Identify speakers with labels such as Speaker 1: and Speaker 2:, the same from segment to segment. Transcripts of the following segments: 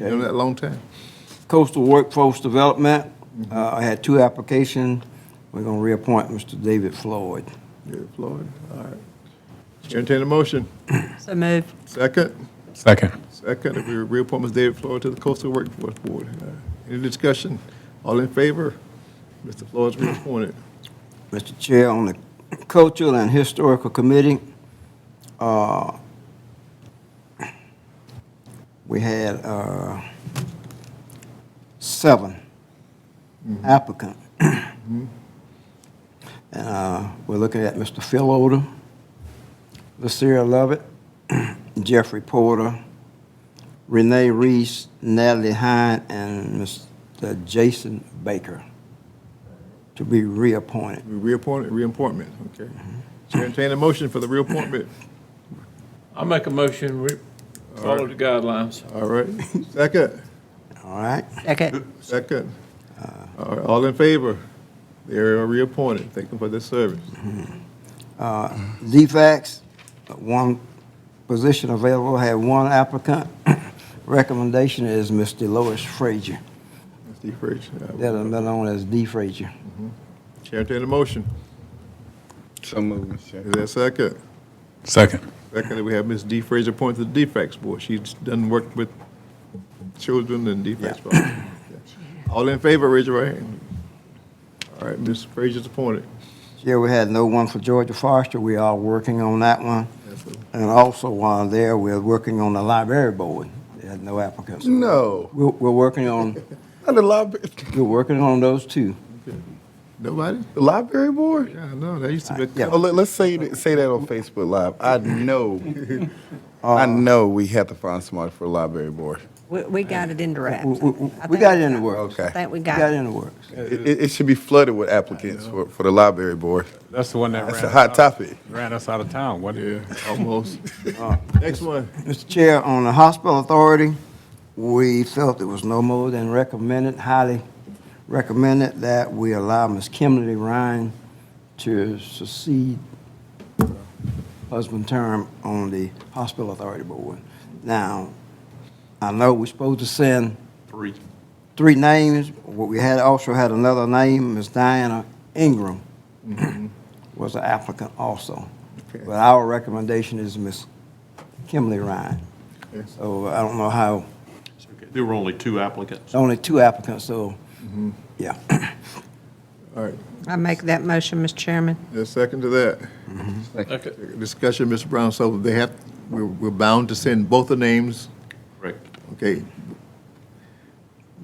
Speaker 1: You know, that long time.
Speaker 2: Coastal Workforce Development, uh, I had two applications. We're going to reappoint Mr. David Floyd.
Speaker 1: Yeah, Floyd, all right. Entertain a motion.
Speaker 3: So move.
Speaker 1: Second,
Speaker 4: Second.
Speaker 1: second, if we reappoint Ms. David Floyd to the Coastal Workforce Board. All right. Any discussion? All in favor? Mr. Floyd's reappointed.
Speaker 2: Mr. Chair, on the Cultural and Historical Committee, uh, we had uh, seven applicant. And uh, we're looking at Mr. Phil Odom, Lucille Lovett, Jeffrey Porter, Renee Reese, Natalie Hine, and Mr. Jason Baker to be reappointed.
Speaker 1: We reappointed, reappointment, okay. Chair, entertain a motion for the reappointment.
Speaker 5: I make a motion, we follow the guidelines.
Speaker 1: All right. Second,
Speaker 2: All right?
Speaker 3: Second.
Speaker 1: second. All right, All in favor? They are reappointed. Thank them for their service.
Speaker 2: Uh, DFAX, uh, one position available, had one applicant. Recommendation is Mr. Lois Frazier,
Speaker 1: Steve Frazier. all right.
Speaker 2: that is better known as D. Frazier.
Speaker 1: uh, Chair, entertain a motion.
Speaker 4: So moved, Mr. Chair.
Speaker 1: Is there a second?
Speaker 4: Second.
Speaker 1: Secondly, we have Ms. D. Fraser appointed to the defects board. She's done work with children and defects. All in favor, raise your right hand. All right, Ms. Fraser's appointed.
Speaker 2: Here we had no one for Georgia Foster, we are working on that one.
Speaker 1: That's a-
Speaker 2: And also while there, we're working on the library board, they had no applicants.
Speaker 4: No.
Speaker 2: We're, we're working on,
Speaker 4: Not the library,
Speaker 2: we're working on those two.
Speaker 1: Nobody?
Speaker 4: the library board?
Speaker 1: Yeah, I know, that used to be.
Speaker 2: Yeah.
Speaker 4: Oh, let, us say that, say that on Facebook Live. I know, I know we have to find somebody for the library board.
Speaker 3: We, we got it in the wrap.
Speaker 2: We, we- we got it in the works.
Speaker 4: Okay.
Speaker 3: I think we
Speaker 2: We
Speaker 3: got
Speaker 2: got it
Speaker 3: it.
Speaker 2: in the works.
Speaker 4: It, it, it should be flooded with applicants for, for the library board.
Speaker 6: That's the one that
Speaker 4: That's
Speaker 6: ran
Speaker 4: a
Speaker 6: us
Speaker 4: hot
Speaker 6: out-
Speaker 4: topic.
Speaker 6: Ran us out of town, wasn't it?
Speaker 1: Yeah, almost. Next one.
Speaker 2: Mr. Chair, on the hospital authority, we felt it was no more than recommended, highly recommended that we allow Ms. Kimberly Ryan to succeed husband term on the hospital authority board. Now, I know we're supposed to send
Speaker 7: Three.
Speaker 2: three names. What We had, also had another name, Ms. Diana Ingram was an applicant also.
Speaker 1: Okay.
Speaker 2: But our recommendation is Ms. Kimberly Ryan.
Speaker 1: Okay.
Speaker 2: So I don't know how,
Speaker 7: It's okay. There were only two applicants.
Speaker 2: only two applicants, so, yeah.
Speaker 1: All right,
Speaker 3: I make that motion, Mr. Chairman.
Speaker 1: there's a second to that.
Speaker 5: Okay,
Speaker 1: Discussion, Mr. Brown, so they have, we're, we're bound to send both the names,
Speaker 7: Correct.
Speaker 1: okay?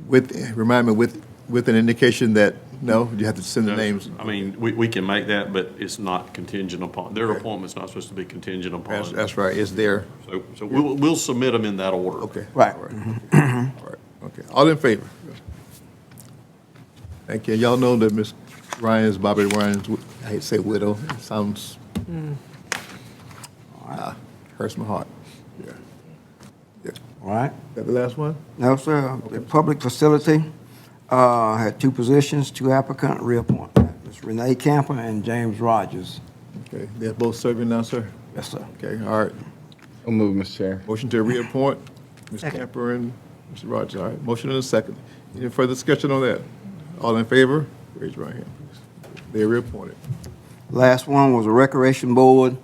Speaker 1: With, remind me, with, with an indication that, no, you have to send the names.
Speaker 7: I mean, we, we can make that, but it's not contingent upon, their
Speaker 1: Okay.
Speaker 7: appointment's not supposed to be contingent upon.
Speaker 1: That's, that's right, it's there.
Speaker 7: So, so we'll, we'll submit them in that order.
Speaker 1: Okay.
Speaker 2: Right.
Speaker 1: All All right. Okay, all in favor? Thank you. Y'all know that Miss Ryan's, Bobby Ryan's, wi- I hate to say widow, it sounds, Ah, hurts my heart. Yeah. Yeah.
Speaker 2: All right?
Speaker 1: That the last one?
Speaker 2: No, sir, the public facility uh, had two positions, two applicant, reappointment. Ms. Renee Camper and James Rogers.
Speaker 1: Okay, they're both serving now, sir?
Speaker 2: Yes, sir.
Speaker 1: Okay, all right.
Speaker 4: I'll move, Mr. Chair.
Speaker 1: Motion to reappoint, Ms.
Speaker 3: Second.
Speaker 1: Camper and Mr. Rogers, all right. Motion and a second. Any further discussion on that? All in favor? Raise your right hand, please. They're reappointed.
Speaker 2: Last one was a recreation board.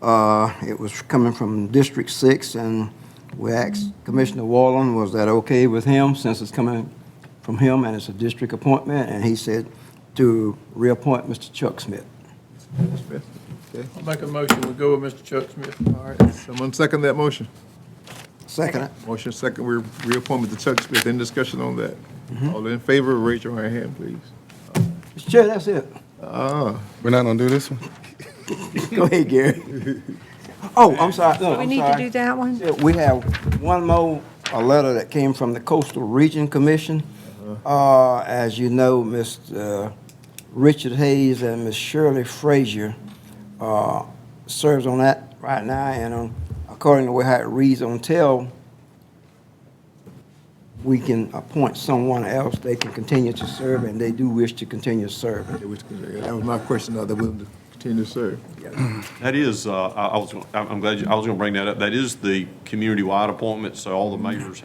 Speaker 2: Uh, It was coming from District Six, and we asked Commissioner Wallen, was that okay with him, since it's coming from him and it's a district appointment? And he said to reappoint Mr. Chuck Smith.
Speaker 1: Ms. Smith, Okay,
Speaker 5: I make a motion, we go with Mr. Chuck Smith.
Speaker 1: all right. Someone second that motion?
Speaker 2: Second.
Speaker 1: Motion second, we reappoint Mr. Chuck Smith. Any discussion on that? All in favor, raise your right hand, please.
Speaker 2: Mr. Chair, that's it.
Speaker 1: Ah,
Speaker 4: We're not gonna do this one?
Speaker 2: Go ahead, Gary. Oh, I'm sorry, no,
Speaker 3: Do we
Speaker 2: I'm
Speaker 3: need to do
Speaker 2: sorry.
Speaker 3: that one?
Speaker 2: Yeah, We have one more, a letter that came from the Coastal Region Commission. Uh, As you know, Mr. Richard Hayes and Ms. Shirley Frazier uh, serves on that right now, and um, according to how it reads on tell, we can appoint someone else, they can continue to serve, and they do wish to continue serving.
Speaker 1: that was that was my question, Now they're willing to continue to serve.
Speaker 7: That
Speaker 1: Mm-hmm.
Speaker 7: is, uh, I I was, gonna- I'm I'm glad, you- I was going to bring that up. That is the community-wide appointment, so all the mayors